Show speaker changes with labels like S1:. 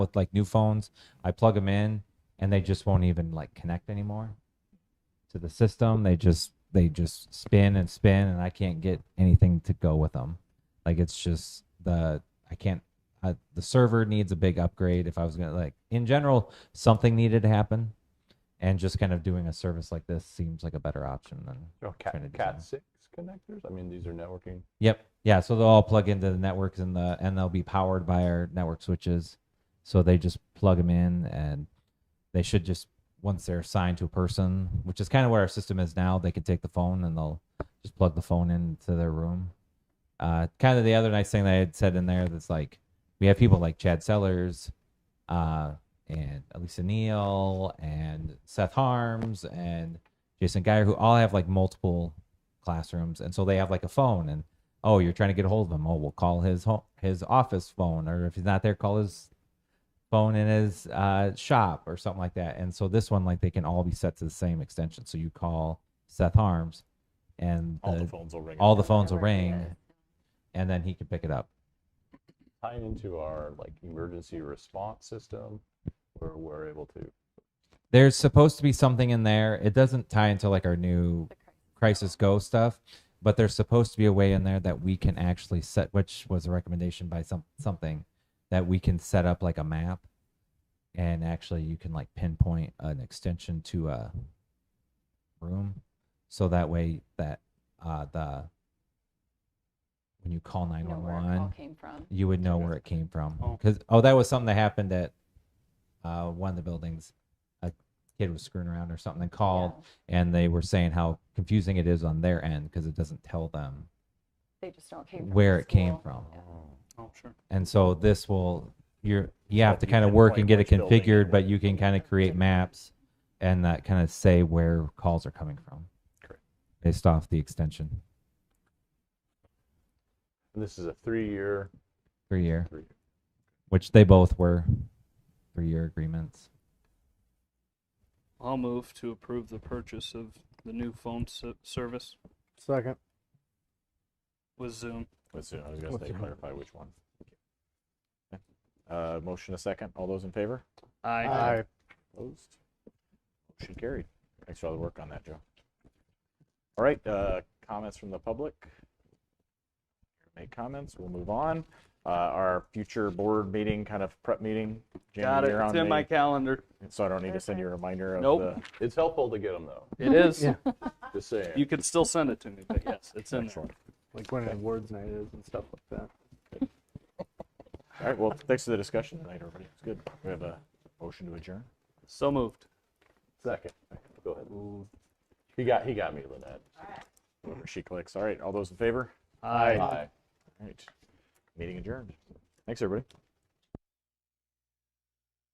S1: with like new phones. I plug them in and they just won't even like connect anymore to the system. They just they just spin and spin and I can't get anything to go with them. Like it's just the I can't I, the server needs a big upgrade if I was going to like in general something needed to happen and just kind of doing a service like this seems like a better option than
S2: Oh, cat,
S1: trying to
S2: cat
S1: design.
S2: six connectors. I mean, these are networking.
S1: Yep. Yeah. So they'll all plug into the networks and the and they'll be powered by our network switches. So they just plug them in and they should just once they're assigned to a person, which is kind of what our system is now, they can take the phone and they'll just plug the phone into their room. Uh, kind of the other nice thing that I had said in there that's like we have people like Chad Sellers, uh, and Elisa Neal and Seth Harms and Jason Geyer who all have like multiple classrooms and so they have like a phone and oh, you're trying to get a hold of him. Oh, we'll call his home, his office phone, or if he's not there, call his phone in his uh, shop or something like that. And so this one, like, they can all be set to the same extension. So you call Seth Harms, and
S2: All the
S1: the-
S2: phones will ring.
S1: Uh, all
S2: up.
S1: the phones will
S3: Wherever he
S1: ring,
S3: is.
S1: and then he can pick it up.
S2: tying into our like emergency response system, where we're able to.
S1: There's supposed to be something in there. It doesn't tie into like our new
S3: The cri-
S1: Crisis Go stuff, but there's supposed to be a way in there that we can actually set, which was a recommendation by some something that we can set up like a map, and actually you can like pinpoint an extension to a room, so that way that uh the when you call nine
S3: know
S1: one
S3: where it all
S1: one
S3: came from.
S1: you would know where it came from
S4: Oh.
S1: because oh. that was something that happened at uh one of the buildings a kid was screwing around or something and called
S3: Yeah.
S1: and they were saying how confusing it is on their end because it doesn't tell them
S3: They just don't came from the
S1: where it came
S3: school.
S2: um,
S1: from.
S4: Oh, sure.
S1: And so this will you're you
S2: if
S1: have to
S2: you
S1: kind of work
S2: pinpoint
S1: and get it
S2: which building it
S1: configured, but
S2: was.
S1: you can kind of create maps and that kind of say where calls are coming from.
S2: Correct.
S1: Based off the extension
S2: And this is a three-year,
S1: three year,
S2: three year
S1: which they both were three year agreements.
S4: I'll move to approve the purchase of the new phone s- service
S5: Second.
S4: with Zoom.
S2: Let's see, I was gonna
S5: What's
S2: say
S5: your mind?
S2: clarify which one. Uh, motion a second. All those in favor?
S4: I
S5: Aye.
S2: Opposed? Motion carried. Thanks for all the work on that, Joe. All right, uh, comments from the public? Make comments, we'll move on. Uh, our future board meeting, kind of prep meeting. Jamie,
S4: Got it.
S2: you're
S4: It's
S2: on
S4: in my
S2: the-
S4: calendar.
S2: So I don't need to send you a reminder of
S4: Nope.
S2: the. It's helpful to get them though,
S4: It is.
S5: Yeah.
S2: just saying.
S4: You can still send it to me, but yes, it's in there.
S2: Excellent.
S5: Like when an awards night is and stuff like that.
S2: All right, well, thanks for the discussion tonight, everybody. It's good. We have a motion to adjourn.
S4: So moved.
S2: Second. Go ahead. He got, he got me, Lynette. Whatever she clicks. All right, all those in favor?
S4: Aye.
S2: All right, meeting adjourned. Thanks, everybody.